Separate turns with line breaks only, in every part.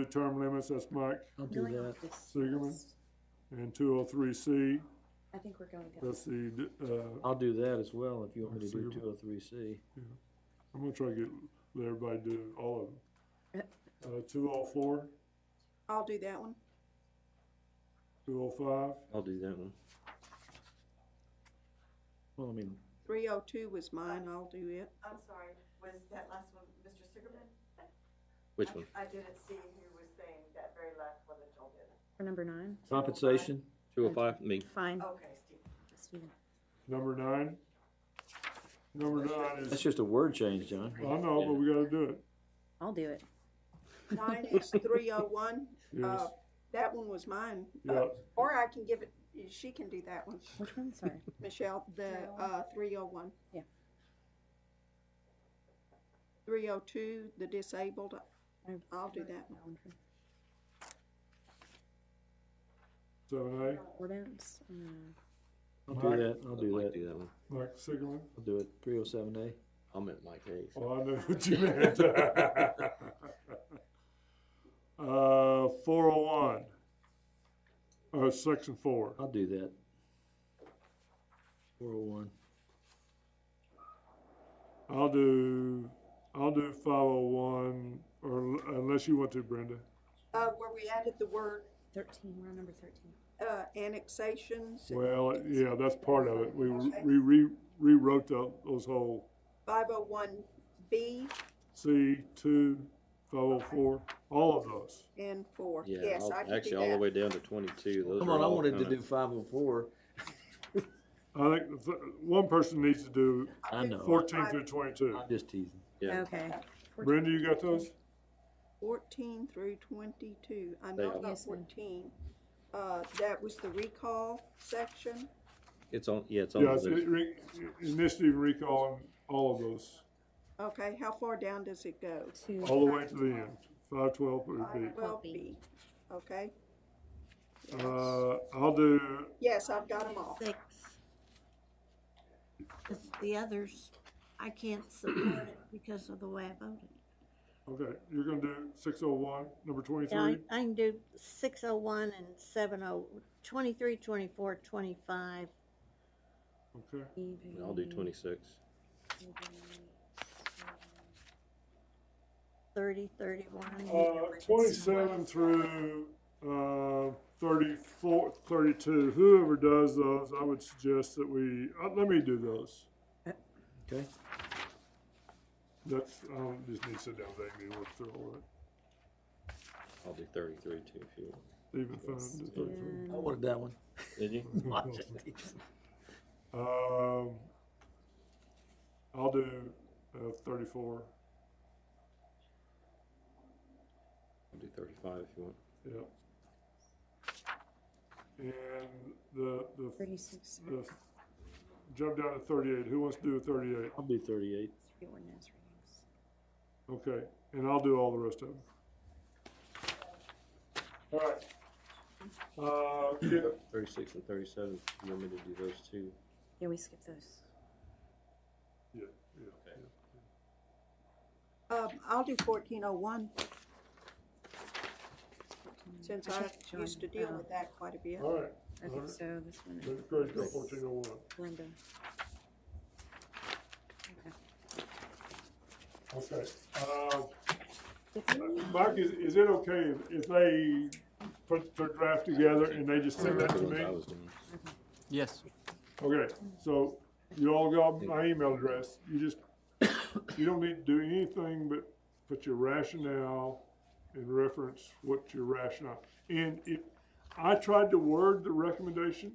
extended term limits, that's Mike
I'll do
Going
that.
off this
Siegerman?
list,
and two oh three C,
I think we're going down.
that's the, uh,
I'll do that as well if you want me to do
Sure.
two oh three C.
I'm gonna try to get, let everybody do all of them. Uh, two oh four,
I'll do that one.
two oh
I'll do that one. Well, I mean,
Three oh two was mine, I'll do it.
I'm sorry, was that last one, Mr. Sigerman?
Which one?
I didn't see who was saying that very last one that y'all did.
For number nine,
compensation,
Two oh five, me.
fine,
Okay, Steve.
Stephen.
five, number nine. Number nine
that's
is,
just a word change, John.
I know, but we gotta do it,
I'll do it.
Mine is three oh one.
yes,
That one was mine. Uh,
yeah,
Or I can give it, she can do that one,
Which one? Sorry.
Michelle, the, uh, three oh one.
Yeah.
Three oh two, the disabled,
I-
I'll do that one.
seven
Ordinance, um,
I'll do that, I'll do
Mike
that.
Do that one.
A, Mike Sigelman,
I'll do it, three oh seven A.
I meant Mike Hayes.
oh, I know what you meant. Uh, four oh one, uh, section four,
I'll do that. Four oh one.
I'll do, I'll do five oh one, or unless you want to, Brenda.
Uh, where we added the word,
thirteen, we're on number thirteen.
uh, annexations,
Well, yeah, that's part of it. We we re rewrote tho- those whole
five oh one B
C two, five oh four, all of those.
and four.
Yeah,
Yes,
all-
I can do that.
actually, all the way down to twenty-two. Those
Come
are
on, I
all
wanted to
kinda-
do five oh four.
I think the th- one person needs to do
I know,
fourteen through twenty-two.
I'm just teasing.
Yeah.
Okay,
Brenda, you got those?
fourteen through twenty-two, I
They
know
are.
about
Yes, ma'am.
fourteen. Uh, that was the recall section,
It's on, yeah, it's on. the
Yeah, it's
list.
it re- initiative recall and all of those,
okay, how far down does it go?
two.
all the way to the end, five twelve would be.
Well,
B.
B, okay,
Uh, I'll do,
yes, I've got them all,
six. 'Cause The others, I can't support it because of the way I voted.
okay, you're gonna do six oh one, number
Yeah, I,
twenty-three?
I can do six oh one and seven oh, twenty-three, twenty-four, twenty-five.
Okay,
And I'll do twenty-six.
30, 31.
Uh, twenty-seven through, uh, thirty-four, thirty-two, whoever does those, I would suggest that we, uh, let me do those.
Okay,
That's, I don't um, just need to sit down, they need to work through all
I'll do thirty-three too if you want.
that, even five to thirty-three.
And-
I wanted that one.
Did you?
Mm-hmm.
I'm just teasing.
Um, I'll do, uh, thirty-four,
I'll do thirty-five if you want.
yeah. And the, the,
Thirty-six,
the, jump down to thirty-eight, who wants to do thirty-eight?
I'll do thirty-eight.
three ordinance readings.
Okay, and I'll do all the rest of them. All right. Uh, okay,
Thirty-six and thirty-seven, you want me to do those two?
Yeah, we skipped those.
yeah, yeah.
um, I'll do fourteen oh one, since I
think
used to
John-
deal
uh,
with that quite a bit.
All right, all
Okay,
right.
so this one is
Let Craig go fourteen oh one.
Brenda.
Okay, uh,
Tiffany?
Mike, is, is it okay if- if they put their draft together and they just send that
That's
to
the ones I
me?
was doing.
Yes.
Okay, so you all got my email address, you just, you don't need to do anything but put your rationale and reference what your rationale. And if, I tried to word the recommendation,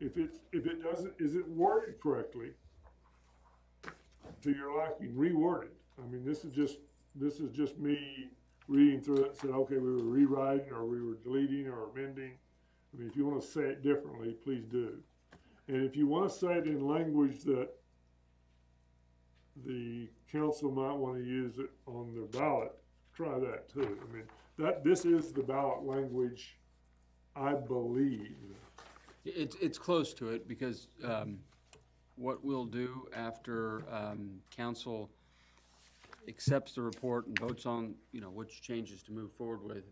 if it, if it doesn't, is it worded correctly? To your liking, reword it. I mean, this is just, this is just me reading through it, and said, okay, we were rewriting, or we were deleting, or amending. I mean, if you wanna say it differently, please do. And if you want to say it in language that the council might want to use it on their ballot, try that too. I mean, that, this is the ballot language, I believe.
It's, it's close to it because um, what we'll do after um, council accepts the report and votes on, you know, which changes to move forward with,